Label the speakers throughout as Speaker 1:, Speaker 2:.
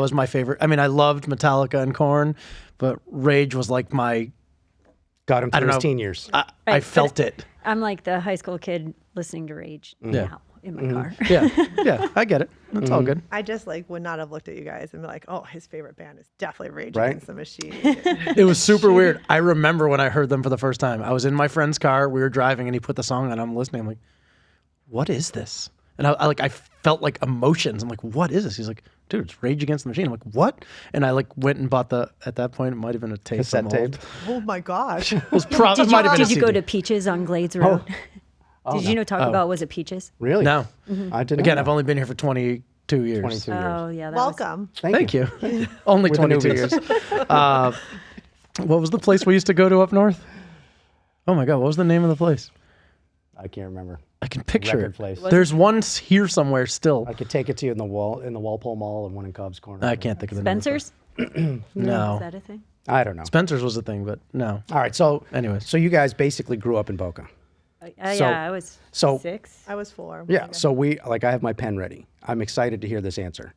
Speaker 1: was my favorite. I mean, I loved Metallica and Corn, but Rage was like my.
Speaker 2: Got him
Speaker 1: I
Speaker 2: through
Speaker 1: don't
Speaker 2: his
Speaker 1: know.
Speaker 2: teen years.
Speaker 1: I, I
Speaker 3: Right,
Speaker 1: felt
Speaker 3: but-
Speaker 1: it.
Speaker 3: I'm like the high school kid listening to Rage
Speaker 2: Mm.
Speaker 1: Yeah.
Speaker 3: now in
Speaker 2: Mm-hmm.
Speaker 3: my car.
Speaker 1: Yeah, yeah, I get it. That's all good.
Speaker 4: I just like would not have looked at you guys and be like, oh, his favorite band is definitely Rage
Speaker 2: Right?
Speaker 4: Against the Machine.
Speaker 1: It was super weird. I remember when I heard them for the first time. I was in my friend's car. We were driving, and he put the song on. I'm listening. I'm like, "What is this?" And I, I like, I felt like emotions. I'm like, "What is this?" He's like, "Dude, it's Rage Against the Machine." I'm like, "What?" And I like went and bought the. At that point, it might have been a tape.
Speaker 2: Cassette
Speaker 1: from old-
Speaker 2: tape.
Speaker 4: oh my gosh.
Speaker 1: It was prob-
Speaker 3: Did
Speaker 1: it
Speaker 3: you,
Speaker 1: might have been a
Speaker 3: did you go
Speaker 1: CD.
Speaker 3: to Peaches on Glades
Speaker 2: Oh.
Speaker 3: Road? did you know Taco Bell was at Peaches?
Speaker 2: Really?
Speaker 1: No.
Speaker 2: I didn't.
Speaker 1: Again,
Speaker 2: know.
Speaker 1: I've only been here for 22 years.
Speaker 2: 22 years.
Speaker 3: Mm-hmm. Oh yeah, that was-
Speaker 4: Welcome.
Speaker 2: Thank,
Speaker 1: Thank
Speaker 2: you.
Speaker 1: you. only
Speaker 2: We're the
Speaker 1: 22 years. uh, what was the place we used to go to up north? Oh my God, what was the name of the place?
Speaker 2: I can't remember.
Speaker 1: I can picture
Speaker 2: Record
Speaker 1: it.
Speaker 2: place. Wasn't-
Speaker 1: There's one s- here somewhere still.
Speaker 2: I could take it to you in the wall in the Walpole Mall and one in Cobb's Corner.
Speaker 1: I can't think of the
Speaker 3: Spencer's.
Speaker 1: name. No.
Speaker 3: Is that a thing?
Speaker 2: I don't know.
Speaker 1: Spencer's was a thing, but no.
Speaker 2: All right. So
Speaker 1: Anyways.
Speaker 2: so you guys basically grew up in Boca.
Speaker 3: I- I-
Speaker 2: So-
Speaker 3: Oh, yeah, I was
Speaker 2: so-
Speaker 3: six.
Speaker 4: I was four.
Speaker 2: Yeah. So we like I have my pen ready. I'm excited to hear this answer.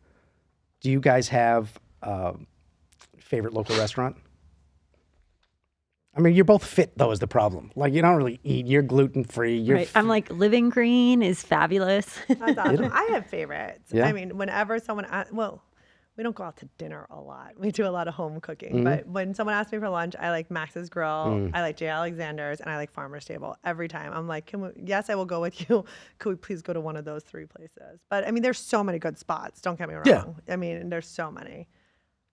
Speaker 2: Do you guys have uh, favorite local restaurant? I mean, you're both fit though is the problem. Like you don't really eat. You're gluten free. You're
Speaker 3: Right. I'm like Living Green is fabulous.
Speaker 4: That's awesome. I have favorites.
Speaker 2: Yeah.
Speaker 4: I mean, whenever someone asks, well, we don't go out to dinner a lot. We do a lot of home cooking.
Speaker 1: Mm-hmm.
Speaker 4: But when someone asks me for lunch, I like Max's Grill,
Speaker 1: Mm.
Speaker 4: I like J. Alexander's, and I like Farmer's Table every time. I'm like, can we, yes, I will go with you. Could we please go to one of those three places? But I mean, there's so many good spots. Don't get me wrong.
Speaker 1: Yeah.
Speaker 4: I mean, there's so many.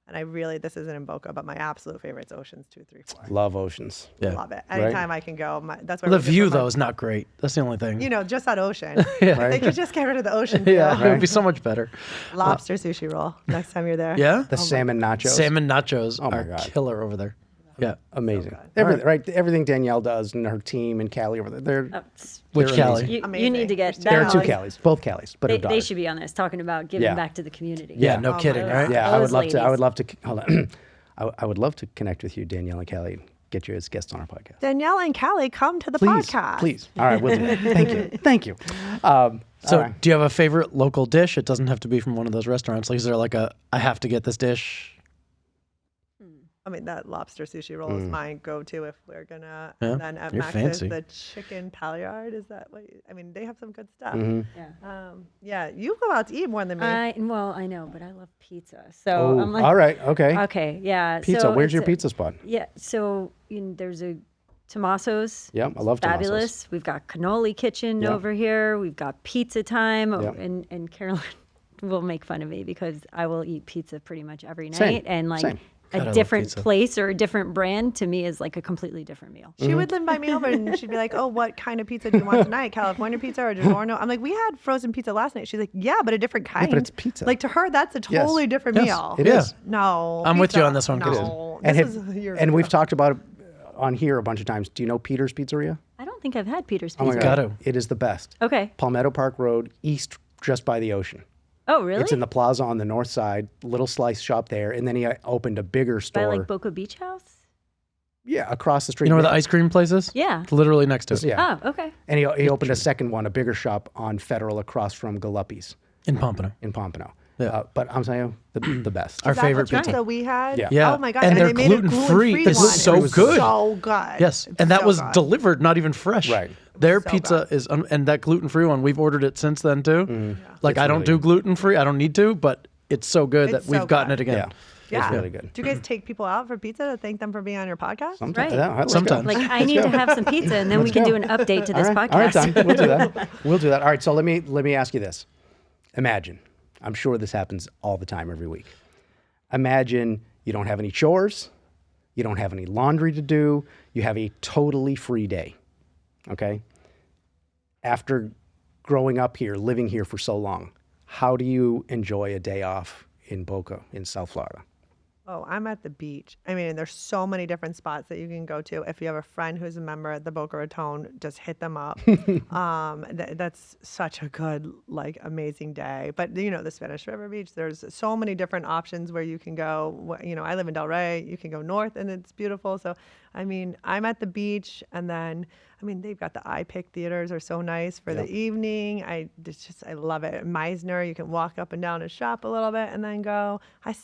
Speaker 4: And I really, this isn't in Boca, but my absolute favorite's Oceans 234.
Speaker 2: love oceans.
Speaker 1: Yeah.
Speaker 4: Love it.
Speaker 2: Right.
Speaker 4: Anytime I can go, my, that's where
Speaker 1: The
Speaker 4: we just
Speaker 1: view,
Speaker 4: put my-
Speaker 1: though, is not great. That's the only thing.
Speaker 4: You know, just that ocean. They
Speaker 2: Right?
Speaker 4: could just get rid of the ocean.
Speaker 1: yeah,
Speaker 4: feel.
Speaker 1: it would be so much better.
Speaker 4: Lobster sushi roll next time you're there.
Speaker 1: Yeah?
Speaker 3: Oh
Speaker 2: The salmon nachos. Oh
Speaker 1: Salmon nachos
Speaker 2: my
Speaker 1: are
Speaker 2: God.
Speaker 1: killer over there. Yeah.
Speaker 2: Amazing. Everything, right. Everything Danielle does and her team and Callie over there. They're,
Speaker 3: Oh,
Speaker 1: Which
Speaker 2: They're
Speaker 1: Cali?
Speaker 2: amazing.
Speaker 3: you, you
Speaker 4: Amazing.
Speaker 3: need to get
Speaker 4: There
Speaker 3: that.
Speaker 2: there are two
Speaker 3: on-
Speaker 2: Callies, both Callies, but
Speaker 3: They,
Speaker 2: her
Speaker 3: they
Speaker 2: daughter.
Speaker 3: should be on this talking about giving
Speaker 2: Yeah.
Speaker 3: back to the community.
Speaker 1: Yeah, no
Speaker 2: Oh
Speaker 4: my
Speaker 1: kidding,
Speaker 4: God.
Speaker 1: right?
Speaker 2: Yeah, I would
Speaker 3: Those
Speaker 2: love to. I
Speaker 3: ladies.
Speaker 2: would love to. Hold on. I, I would love to connect with you, Danielle and Callie, and get you as guests on our podcast.
Speaker 4: Danielle and Callie, come to the
Speaker 2: Please,
Speaker 4: podcast.
Speaker 2: please. All right, we'll do that. Thank you, thank you. Um,
Speaker 1: So,
Speaker 2: all right.
Speaker 1: do you have a favorite local dish? It doesn't have to be from one of those restaurants. Like, is there like a I have to get this dish?
Speaker 4: I mean, that lobster sushi roll is my go-to if we're gonna.
Speaker 1: Yeah,
Speaker 4: And then at
Speaker 1: you're
Speaker 4: Max's,
Speaker 1: fancy.
Speaker 4: the chicken paillard. Is that what? You, I mean, they have some good stuff.
Speaker 3: Yeah.
Speaker 4: Um, yeah, you go out to eat more than me.
Speaker 3: I well, I know, but I love pizza. So
Speaker 2: Oh,
Speaker 3: I'm like,
Speaker 2: all right, okay.
Speaker 3: okay, yeah.
Speaker 2: pizza.
Speaker 3: so
Speaker 2: Where's
Speaker 3: it's
Speaker 2: your
Speaker 3: a-
Speaker 2: pizza spot?
Speaker 3: Yeah. So you know, there's a Tommaso's.
Speaker 2: Yep, I love Tommaso's.
Speaker 3: Fabulous. We've got cannoli kitchen
Speaker 2: Yep.
Speaker 3: over here. We've got pizza time, Oh,
Speaker 2: Yep.
Speaker 3: and and Carolyn will make fun of me because I will eat pizza pretty much every night,
Speaker 2: Same,
Speaker 3: and like.
Speaker 2: same.
Speaker 1: I
Speaker 3: A
Speaker 1: love
Speaker 3: different
Speaker 1: pizza.
Speaker 3: place or a different brand to me is like a completely different meal.
Speaker 4: she would live by me over, and she'd be like, "Oh, what kind of pizza do you want tonight? California pizza or DiGiorno?" I'm like, "We had frozen pizza last night." She's like, "Yeah, but a different kind."
Speaker 2: but it's pizza.
Speaker 4: Like to her, that's a totally different
Speaker 2: Yes,
Speaker 4: meal.
Speaker 2: it
Speaker 1: Yeah.
Speaker 2: is.
Speaker 4: No,
Speaker 1: I'm with you
Speaker 4: pizza,
Speaker 1: on this one, Kristen.
Speaker 3: Oh,
Speaker 4: No,
Speaker 2: And,
Speaker 4: this
Speaker 2: have-
Speaker 4: is your
Speaker 2: and we've talked about it on here a bunch of times. Do you know Peter's Pizzeria?
Speaker 3: I don't think I've had Peter's
Speaker 2: Oh
Speaker 3: Pizza.
Speaker 1: Gotta.
Speaker 2: It is the best.
Speaker 3: Okay.
Speaker 2: Palmetto Park Road, east, just by the ocean.
Speaker 3: Oh, really?
Speaker 2: It's in the plaza on the north side, little slice shop there, and then he uh, opened a bigger
Speaker 3: By
Speaker 2: store.
Speaker 3: like Boca Beach House?
Speaker 2: yeah, across the street.
Speaker 1: You know where the ice cream place is?
Speaker 3: Yeah.
Speaker 1: It's literally next to it.
Speaker 2: Yeah,
Speaker 3: Oh, okay.
Speaker 2: and he, he opened a second one, a bigger shop on Federal, across from Galuppi's
Speaker 1: In Pompano.
Speaker 2: in Pompano.
Speaker 1: Yeah.
Speaker 2: Uh, but I'm saying the, the best.
Speaker 1: Our
Speaker 4: Is that
Speaker 1: favorite
Speaker 4: the
Speaker 1: pizza.
Speaker 4: pizza we had.
Speaker 2: Yeah.
Speaker 1: Yeah.
Speaker 4: Oh my gosh.
Speaker 1: And
Speaker 4: And,
Speaker 1: they're
Speaker 4: they made a
Speaker 1: gluten-free.
Speaker 4: gluten-free.
Speaker 1: It's
Speaker 4: one.
Speaker 1: so
Speaker 4: It was
Speaker 1: good.
Speaker 4: So good.
Speaker 1: Yes,
Speaker 4: It's
Speaker 1: and that
Speaker 4: so
Speaker 1: was
Speaker 4: good.
Speaker 1: delivered, not even fresh.
Speaker 2: Right.
Speaker 1: Their
Speaker 4: So
Speaker 1: pizza is, un- and that gluten free one, we've ordered it since then too.
Speaker 2: Mm.
Speaker 1: Like, I don't do gluten free. I don't need to, but it's so good
Speaker 4: It's
Speaker 1: that we've
Speaker 4: so
Speaker 1: gotten
Speaker 4: good.
Speaker 1: it again.
Speaker 2: Yeah.
Speaker 4: Yeah.
Speaker 2: It's really good.
Speaker 4: Do you guys take people out for pizza to thank them for being on your podcast?
Speaker 2: Sometimes.
Speaker 3: Right.
Speaker 2: Yeah, all let's go.
Speaker 1: Sometimes.
Speaker 3: Like I need to have some pizza and then we can do an update to this
Speaker 2: all right,
Speaker 3: podcast.
Speaker 2: all right, Tom, we'll do that. We'll do that. All right, so let me let me ask you this. Imagine, I'm sure this happens all the time every week. Imagine you don't have any chores, you don't have any laundry to do, you have a totally free day. Okay? After growing up here, living here for so long, how do you enjoy a day off in Boca in South Florida?
Speaker 4: Oh, I'm at the beach. I mean, there's so many different spots that you can go to. If you have a friend who's a member at the Boca Raton, just hit them up. um, th- that's such a good, like, amazing day. But you know, the Spanish River Beach. There's so many different options where you can go. Wh- You know, I live in Del Rey. You can go north, and it's beautiful. So, I mean, I'm at the beach, and then I mean, they've got the IPIC theaters are so nice for the evening. I it's just I love it. Meisner, you can walk up and down and shop a little bit, and then go. I